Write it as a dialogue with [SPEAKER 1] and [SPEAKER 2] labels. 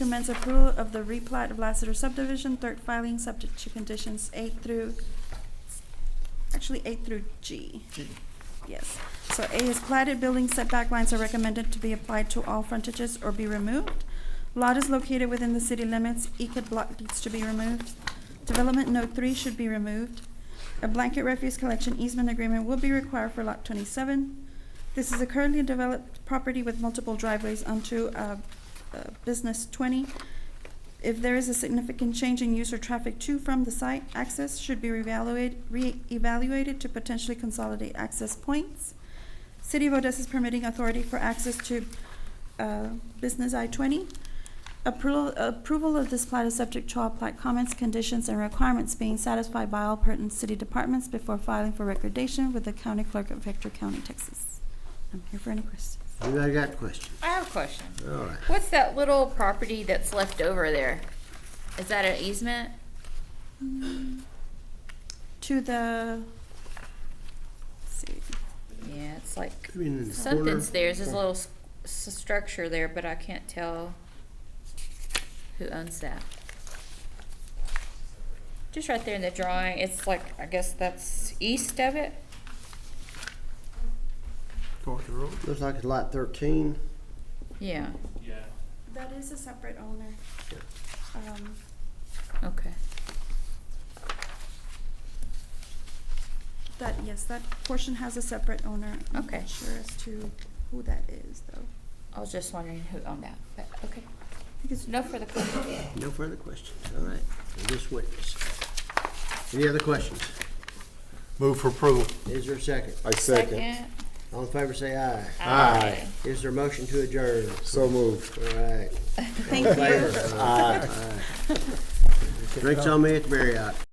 [SPEAKER 1] recommends approval of the replat of Lassiter subdivision, third filing, subject to conditions A through, actually A through G.
[SPEAKER 2] G.
[SPEAKER 1] Yes. So A is platted building setback lines are recommended to be applied to all frontages or be removed. Lot is located within the city limits. ECAD block needs to be removed. Development note three should be removed. A blanket refuse collection easement agreement will be required for lot twenty-seven. This is a currently developed property with multiple driveways onto, uh, uh, business twenty. If there is a significant change in use or traffic to from the site, access should be reevaluated, reevaluated to potentially consolidate access points. City of Odessa's permitting authority for access to uh, business I twenty. Approval, approval of this plat is subject to all plat comments, conditions, and requirements being satisfied by all pertinent city departments before filing for recordation with the county clerk of Victor County, Texas. I'm here for any questions.
[SPEAKER 2] Anybody got questions?
[SPEAKER 3] I have a question.
[SPEAKER 2] All right.
[SPEAKER 3] What's that little property that's left over there? Is that an easement?
[SPEAKER 1] To the, let's see,
[SPEAKER 3] Yeah, it's like,
[SPEAKER 2] I mean, in the corner.
[SPEAKER 3] something's there, there's a little s- s- structure there, but I can't tell who owns that. Just right there in the drawing, it's like, I guess that's east of it?
[SPEAKER 2] Looks like it's lot thirteen.
[SPEAKER 3] Yeah,
[SPEAKER 4] Yeah.
[SPEAKER 1] that is a separate owner. Um,
[SPEAKER 3] okay.
[SPEAKER 1] That, yes, that portion has a separate owner. I'm
[SPEAKER 3] Okay.
[SPEAKER 1] not sure as to who that is, though.
[SPEAKER 3] I was just wondering who owned that, but, okay.
[SPEAKER 1] Because
[SPEAKER 3] No further questions.
[SPEAKER 2] No further questions. All right. And This witness. Any other questions?
[SPEAKER 5] Move for approval.
[SPEAKER 2] Is there a second?
[SPEAKER 6] I second.
[SPEAKER 2] All in favor, say aye.
[SPEAKER 3] Aye.
[SPEAKER 2] Is there a motion to adjourn?
[SPEAKER 6] So moved.
[SPEAKER 2] All right.
[SPEAKER 1] Thank you.
[SPEAKER 2] Drinks on me at the Marriott.